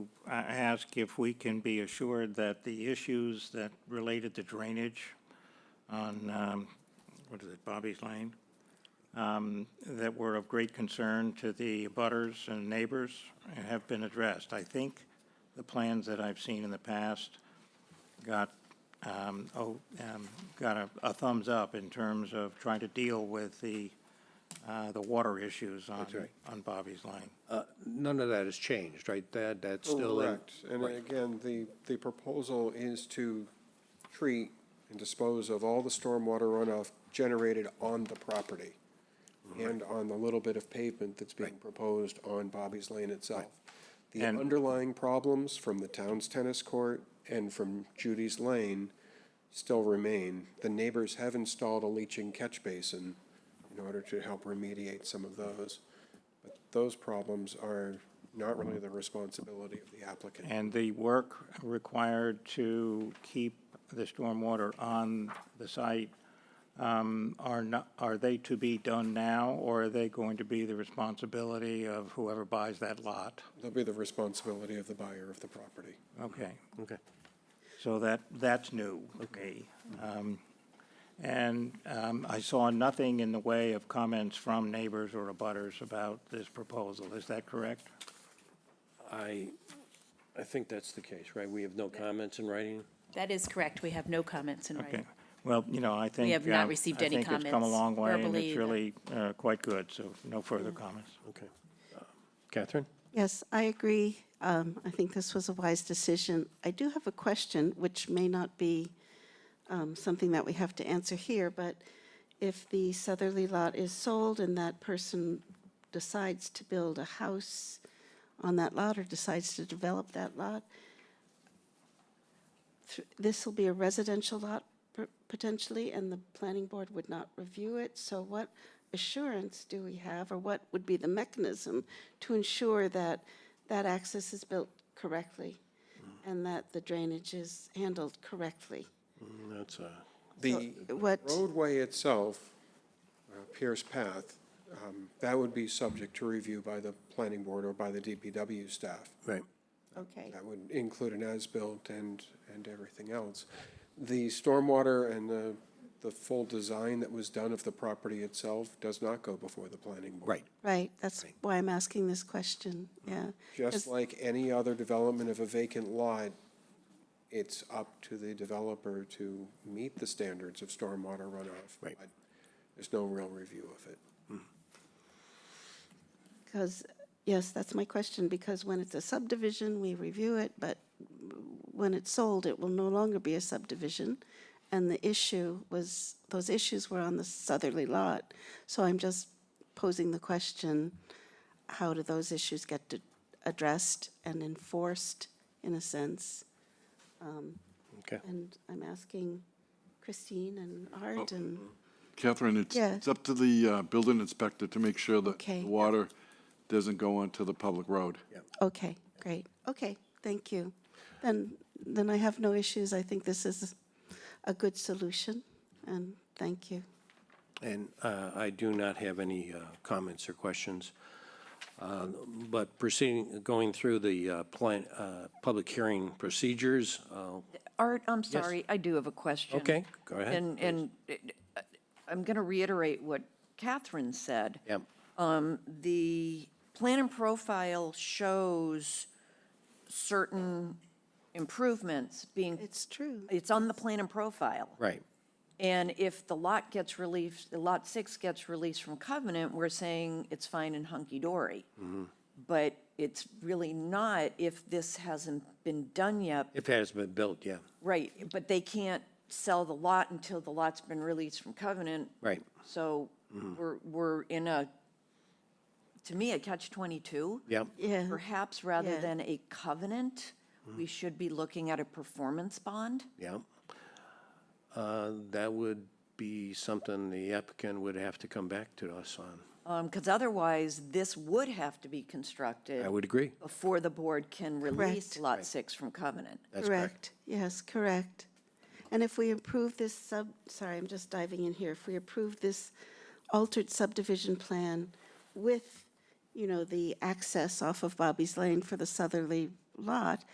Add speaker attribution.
Speaker 1: I ask if we can be assured that the issues that related to drainage on, um, what is it, Bobby's Lane? um, That were of great concern to the butters and neighbors have been addressed. I think the plans that I've seen in the past got, um, oh, um, got a- a thumbs up in terms of trying to deal with the, uh, the water issues on, on Bobby's Lane.
Speaker 2: Uh, None of that has changed, right? That, that's
Speaker 3: Oh,
Speaker 2: still. in-
Speaker 4: Correct, and
Speaker 2: Right.
Speaker 4: again, the, the proposal is to treat and dispose of all the stormwater runoff generated on the property and on the little bit of pavement that's being proposed on Bobby's Lane itself. The
Speaker 1: And-
Speaker 4: underlying problems from the town's tennis court and from Judy's Lane still remain. The neighbors have installed a leaching catch basin in order to help remediate some of those. But those problems are not really the responsibility of the applicant.
Speaker 1: And the work required to keep the stormwater on the site, um, are not, are they to be done now, or are they going to be the responsibility of whoever buys that lot?
Speaker 4: They'll be the responsibility of the buyer of the property.
Speaker 1: Okay.
Speaker 2: Okay.
Speaker 1: So that, that's new, okay. And um, I saw nothing in the way of comments from neighbors or abutters about this proposal. Is that correct?
Speaker 3: I, I think that's the case, right? We have no comments in writing?
Speaker 5: That is correct. We have no comments in
Speaker 1: Okay.
Speaker 5: writing.
Speaker 1: Well, you know, I think.
Speaker 5: have not
Speaker 1: um,
Speaker 5: received any
Speaker 1: I think it's come a
Speaker 5: comments
Speaker 1: long way, and
Speaker 5: verbally
Speaker 1: it's
Speaker 5: that- Mm.
Speaker 1: really uh, quite good, so no further comments.
Speaker 3: Okay. Uh, Catherine?
Speaker 6: Yes, I agree. Um, I think this was a wise decision. I do have a question, which may not be um, something that we have to answer here, but if the southerly lot is sold and that person decides to build a house on that lot or decides to develop that lot, th- this will be a residential lot p- potentially, and the planning board would not review it. So what assurance do we have, or what would be the mechanism to ensure that that access is built correctly and that the drainage is handled correctly?
Speaker 3: Mm, That's a,
Speaker 4: The
Speaker 6: What,
Speaker 4: roadway itself, uh, Pierce Path, um, that would be subject to review by the planning board or by the DPW staff.
Speaker 2: Right.
Speaker 6: okay,
Speaker 4: That would include an as-built and, and everything else. The stormwater and the, the full design that was done of the property itself does not go before the planning board.
Speaker 2: Right.
Speaker 6: right, that's why I'm asking this question, yeah.
Speaker 4: Just
Speaker 6: 'Cause-
Speaker 4: like any other development of a vacant lot, it's up to the developer to meet the standards of stormwater runoff.
Speaker 2: Right.
Speaker 4: but There's no real review of it.
Speaker 6: Because, yes, that's my question, because when it's a subdivision, we review it, but when it's sold, it will no longer be a subdivision. And the issue was, those issues were on the southerly lot. So I'm just posing the question, how do those issues get d- addressed and enforced, in a sense?
Speaker 3: okay.
Speaker 6: And I'm asking Christine and Art and,
Speaker 7: Catherine, it's,
Speaker 6: Yeah.
Speaker 7: it's up to the uh, building inspector to make sure that
Speaker 6: Okay.
Speaker 7: the water doesn't go onto the public road.
Speaker 6: okay, great, okay, thank you. Then, then I have no issues, I think this is a good solution, and thank you.
Speaker 3: And uh, I do not have any uh, comments or questions. Uh, But proceeding, going through the uh, plan, uh, public hearing procedures, uh,
Speaker 8: Art, I'm sorry, I do have a question.
Speaker 3: Okay, go ahead,
Speaker 8: And, and it- I'm going to reiterate what Catherine said.
Speaker 3: yeah,
Speaker 8: The plan and profile shows certain improvements being,
Speaker 6: It's true.
Speaker 8: it's on the plan and profile.
Speaker 3: right.
Speaker 8: And if the lot gets released, Lot 6 gets released from covenant, we're saying it's fine and hunky-dory.
Speaker 3: Mm-hmm.
Speaker 8: But it's really not if this hasn't been done yet
Speaker 3: If it has been built, yeah,
Speaker 8: Right, but they can't sell the lot until the lot's been released from covenant.
Speaker 3: right. Mm-hmm.
Speaker 8: So we're, we're in a, to me, a catch-22.
Speaker 3: Yep.
Speaker 6: Yeah.
Speaker 8: Perhaps rather
Speaker 6: Yeah.
Speaker 8: than a covenant,
Speaker 3: Mm-hmm.
Speaker 8: we should be looking at a performance bond.
Speaker 3: Yeah. Uh, That would be something the applicant would have to come back to us on.
Speaker 8: Because um, otherwise, this would have to be constructed
Speaker 3: I would agree.
Speaker 8: before the board can release
Speaker 6: Correct.
Speaker 8: Lot 6 from covenant.
Speaker 3: That's correct.
Speaker 6: Yes, correct. And if we approve this sub, sorry, I'm just diving in here. If we approve this altered subdivision plan with, you know, the access off of Bobby's Lane for the southerly lot